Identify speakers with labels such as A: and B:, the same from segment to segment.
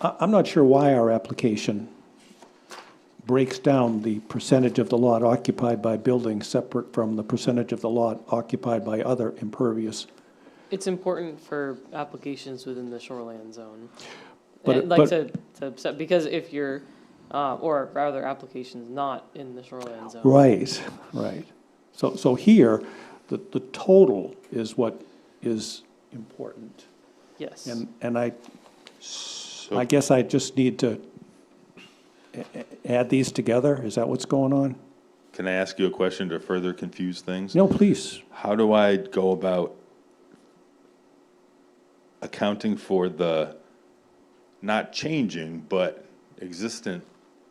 A: I, I'm not sure why our application breaks down the percentage of the lot occupied by buildings separate from the percentage of the lot occupied by other impervious.
B: It's important for applications within the shoreline zone.
A: But
B: And
A: it-
B: like
A: but-
B: to, to, set- because if you're, uh, or rather, applications not in the shoreline zone.
A: Right, right. So, so here, the, the total is what is important.
B: Yes.
A: And, and I, I guess I just need to a- a- add these together? Is that what's going on?
C: Can I ask you a question to further confuse things?
A: No, please.
C: How do I go about accounting for the not changing, but existent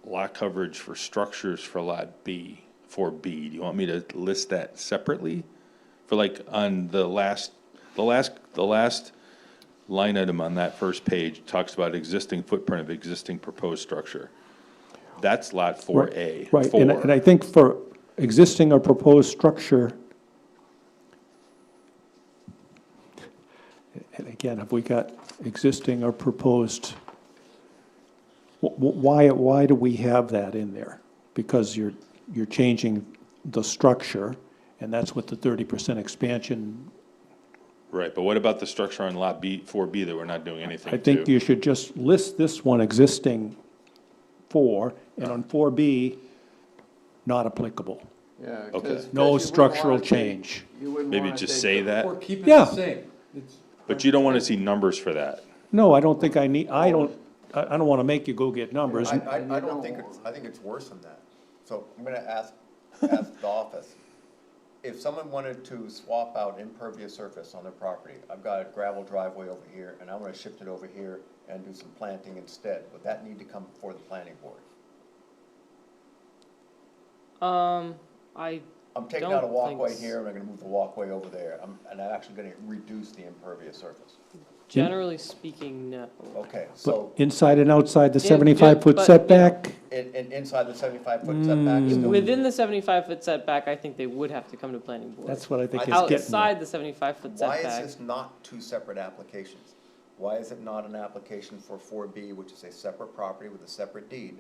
C: lot coverage for structures for lot B, for B? Do you want me to list that separately? For like on the last, the last, the last line item on that first page talks about existing footprint of existing proposed structure. That's lot four A.
A: Right, and I- and I think for existing or proposed structure, and again, have we got existing or proposed? Wh- wh- Why, why do we have that in there? Because you're, you're changing the structure, and that's what the thirty percent expansion,
C: Right, but what about the structure on lot B, four B that we're not doing anything
A: I
C: to?
A: think you should just list this one existing four, and on four B, not applicable.
D: Yeah.
C: Okay.
D: 'cause- 'cause you
A: No
D: wouldn't
A: structural
D: wanna take-
A: change.
D: you wouldn't
C: Maybe
D: wanna
C: just
D: take
C: say
D: the-
C: that,
E: Or keep it
A: Yeah.
E: the same. It's-
C: but you don't want to see numbers for that.
A: No, I don't think I need, I don't, I, I don't want to make you go get numbers.
F: I, I, I don't think it's, I think it's worse than that. So I'm gonna ask, ask the office. If someone wanted to swap out impervious surface on their property, I've got a gravel driveway over here, and I wanna shift it over here and do some planting instead, would that need to come before the planning board?
B: Um, I,
F: I'm taking out a
B: Don't think
F: walkway
B: s-
F: here, and I'm gonna move the walkway over there, I'm, and I'm actually gonna reduce the impervious surface.
B: generally speaking, no.
F: Okay,
A: But
F: so,
A: inside and outside the
B: Yeah,
A: seventy-five foot
B: but, you know-
A: setback,
F: and, and inside the seventy-five foot setback,
B: Mm,
F: is still-
B: Within the seventy-five foot setback, I think they would have to come to planning board.
A: that's what I think is getting at.
B: Outside the seventy-five foot
F: Why is
B: setback,
F: this not two separate applications? Why is it not an application for four B, which is a separate property with a separate deed?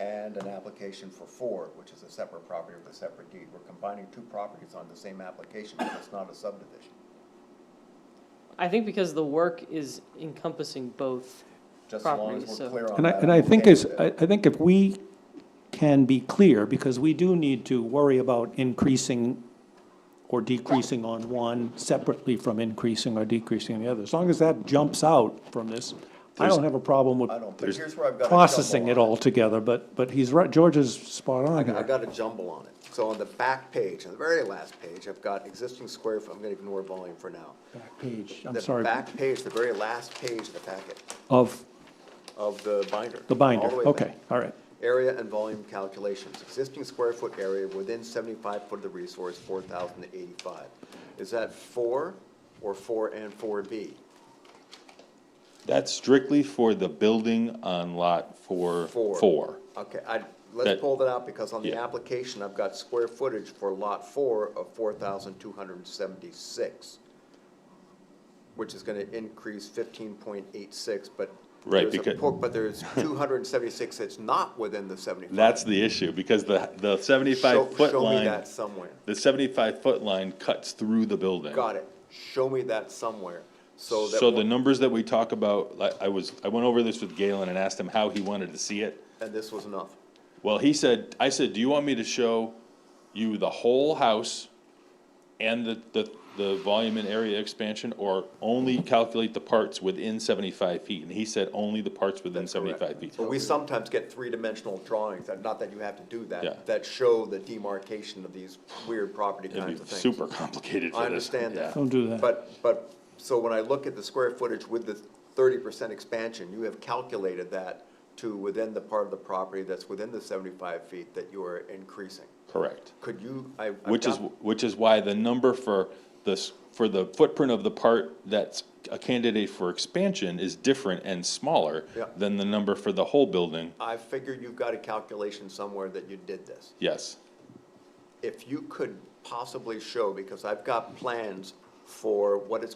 F: And an application for four, which is a separate property with a separate deed? We're combining two properties on the same application, but it's not a subdivision.
B: I think because the work is encompassing both.
F: Just as long
B: Property,
F: as
B: so-
F: we're clear on that.
A: And I, and I
F: I'm
A: think
F: okay
A: is,
F: with
A: I,
F: it.
A: I think if we can be clear, because we do need to worry about increasing or decreasing on one separately from increasing or decreasing on the other. As long as that jumps out from this, I
C: There's-
A: don't have a problem
F: I
A: with
F: don't, but here's where I've got a jumble
A: processing it
F: on
A: all together, but, but he's right, George is spot on
F: I
A: here.
F: got a jumble on it. So on the back page, on the very last page, I've got existing square, foot- I'm gonna ignore volume for now.
A: Back Page, I'm
F: The
A: sorry,
F: back page, the very last page of the packet.
A: of
F: of the binder.
A: the
F: all
A: binder,
F: the way back.
A: okay, all right.
F: Area and volume calculations, existing square foot area within seventy-five foot of the resource, four thousand eighty-five. Is that four or four and four B?
C: That's strictly for the building on lot four,
F: Four.
C: four.
F: Okay, I, let's
C: That-
F: pull that out because on the
C: yeah.
F: application, I've got square footage for lot four of four thousand two hundred and seventy-six, which is gonna increase fifteen point eight six, but
C: Right,
F: there's a
C: because-
F: por- But there's two hundred and seventy-six that's not within the seventy-five.
C: That's the issue, because the, the seventy-five
F: Show-
C: foot
F: Show me
C: line,
F: that somewhere.
C: the seventy-five foot line cuts through the building.
F: Got it. Show me that somewhere, so that.
C: So the
F: one-
C: numbers that we talk about, like, I was, I went over this with Galen and asked him how he wanted to see it.
F: And this was enough.
C: Well, he said, I said, do you want me to show you the whole house and the, the, the volume and area expansion, or only calculate the parts within seventy-five feet? And he said, only the parts within seventy-five feet.
F: But we sometimes get three-dimensional drawings, and not that you have to do
C: Yeah.
F: that, that show the demarcation of these weird property kinds
C: It'd
F: of
C: be
F: things.
C: super complicated for this.
F: I understand that.
A: Don't do that.
F: But, but, so when I look at the square footage with the thirty percent expansion, you have calculated that to within the part of the property that's within the seventy-five feet that you are increasing.
C: Correct.
F: Could you, I. I've
C: Which is,
F: got-
C: which is why the number for this, for the footprint of the part that's a candidate for expansion is different and smaller
F: Yeah.
C: than the number for the whole building.
F: I figure you've got a calculation somewhere that you did this.
C: Yes.
F: if you could possibly show, because I've got plans for what it's